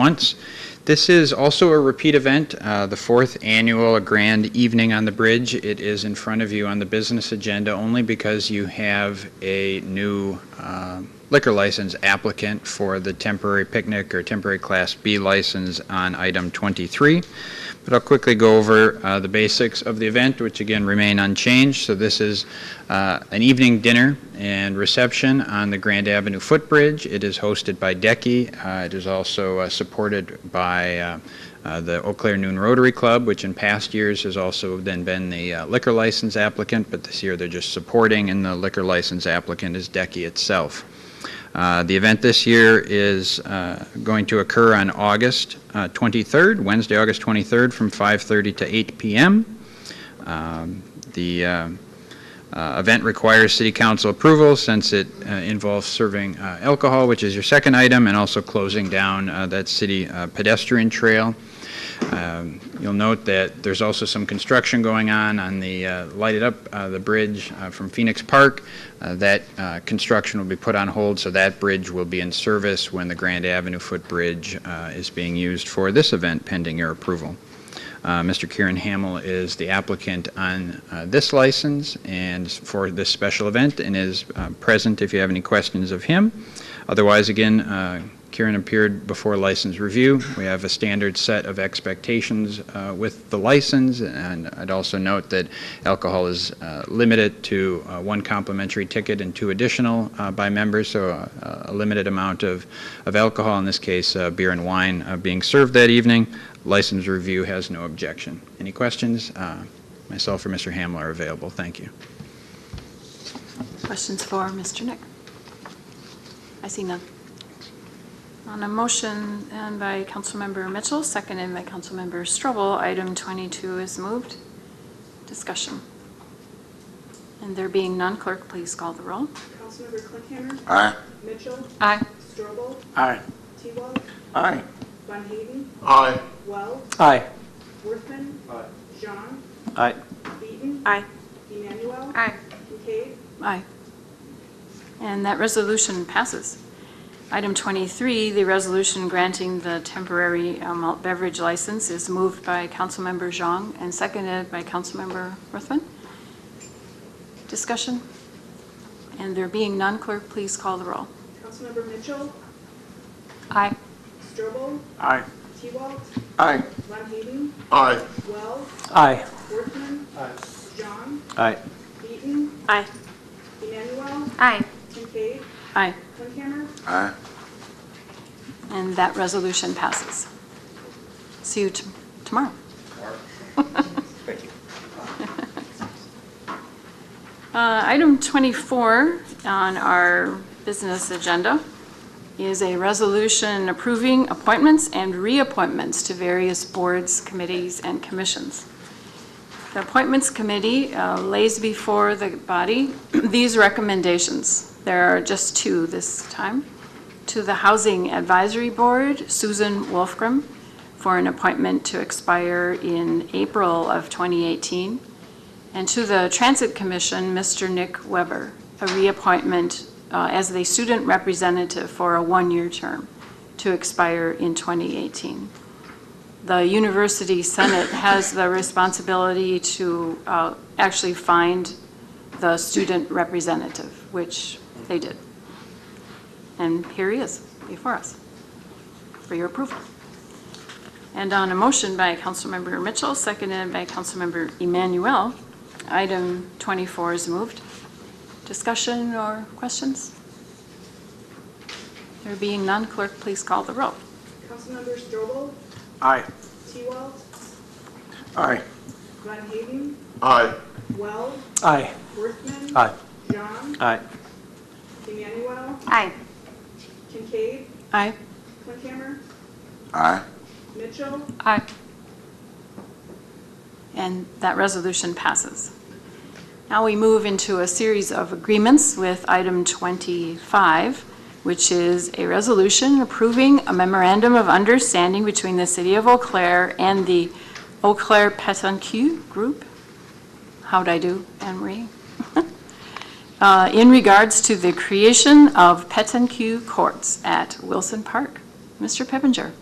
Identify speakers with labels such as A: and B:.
A: once. This is also a repeat event, uh, the fourth annual Grand Evening on the Bridge. It is in front of you on the business agenda only because you have a new uh, liquor license applicant for the temporary picnic or temporary Class B license on item 23. But I'll quickly go over uh, the basics of the event, which again remain unchanged. So this is uh, an evening dinner and reception on the Grand Avenue footbridge. It is hosted by Decky. Uh, It is also uh, supported by uh, uh, the Eau Claire Noon Rotary Club, which in past years has also then been the uh, liquor license applicant, but this year they're just supporting, and the liquor license applicant is Decky itself. Uh, The event this year is uh, going to occur on August uh, 23rd, Wednesday, August 23rd, from 5:30 to 8 p.m. Um, The uh, uh, event requires city council approval since it uh, involves serving uh, alcohol, which is your second item, and also closing down uh, that city uh, pedestrian trail. Um, You'll note that there's also some construction going on on the uh, lighted up, uh, the bridge uh, from Phoenix Park. Uh, That uh, construction will be put on hold, so that bridge will be in service when the Grand Avenue footbridge uh, is being used for this event pending your approval. Uh, Mr. Kieran Hamel is the applicant on uh, this license and for this special event and is uh, present if you have any questions of him. Otherwise, again, uh, Kieran appeared before license review. We have a standard set of expectations uh, with the license, and I'd also note that alcohol is uh, limited to uh, one complimentary ticket and two additional uh, by members, so uh, a limited amount of of alcohol, in this case, uh, beer and wine, uh, being served that evening. License review has no objection. Any questions? Uh, Myself or Mr. Hamel are available. Thank you.
B: Questions for Mr. Nick? I see none. On a motion and by Councilmember Mitchell, seconded by Councilmember Strobel, item 22 is moved. Discussion. And there being none, clerk, please call the roll.
C: Councilmember Clickhammer,
D: Aye.
C: Mitchell,
B: Aye.
C: Strobel,
E: Aye.
C: T-Wall,
E: Aye.
C: Von Hayden,
D: Aye.
C: Wells,
E: Aye.
C: Worthman. Jean,
E: Aye.
C: Beaton.
B: Aye.
C: Emmanuel.
B: Aye.
C: Kincaid,
B: Aye. And that resolution passes. Item 23, the resolution granting the temporary uh, malt beverage license is moved by Councilmember Zhang and seconded by Councilmember Ruthven. Discussion? And there being none, clerk, please call the roll.
C: Councilmember Mitchell,
B: Aye.
C: Strobel,
E: Aye.
C: T-Wall,
E: Aye.
C: Von Hayden,
D: Aye.
C: Wells,
E: Aye.
C: Worthman. Jean,
E: Aye.
C: Beaton,
B: Aye.
C: Emmanuel,
B: Aye.
C: Kincaid,
B: Aye.
C: Clickhammer,
D: Aye.
B: And that resolution passes. See you t- tomorrow. Thank you. Uh, Item 24 on our business agenda is a resolution approving appointments and reappointments to various boards, committees, and commissions. The Appointments Committee uh, lays before the body these recommendations. There are just two this time. To the Housing Advisory Board, Susan Wolfgram, for an appointment to expire in April of 2018. And to the Transit Commission, Mr. Nick Weber, a reappointment uh, as the student representative for a one-year term to expire in 2018 the university senate has the responsibility to uh, actually find the student representative, which they did. And here he is before us for your approval. And on a motion by Councilmember Mitchell, seconded by Councilmember Emanuel, item 24 is moved. Discussion or questions? There being none, clerk, please call the roll.
C: Councilmember Strobel,
E: Aye.
C: T-Wall,
E: Aye.
C: Von Hayden,
D: Aye.
C: Wells,
E: Aye.
C: Worthman.
E: Aye.
C: Jean,
E: Aye.
C: Emmanuel,
B: Aye.
C: Kincaid,
B: Aye.
C: Clickhammer,
D: Aye.
C: Mitchell,
B: Aye. And that resolution passes. Now we move into a series of agreements with item 25, which is a resolution approving a memorandum of understanding between the City of Eau Claire and the Eau Claire Petanque Group. How'd I do, Anne Marie? Uh, In regards to the creation of Petanque Courts at Wilson Park. Mr. Pippinger.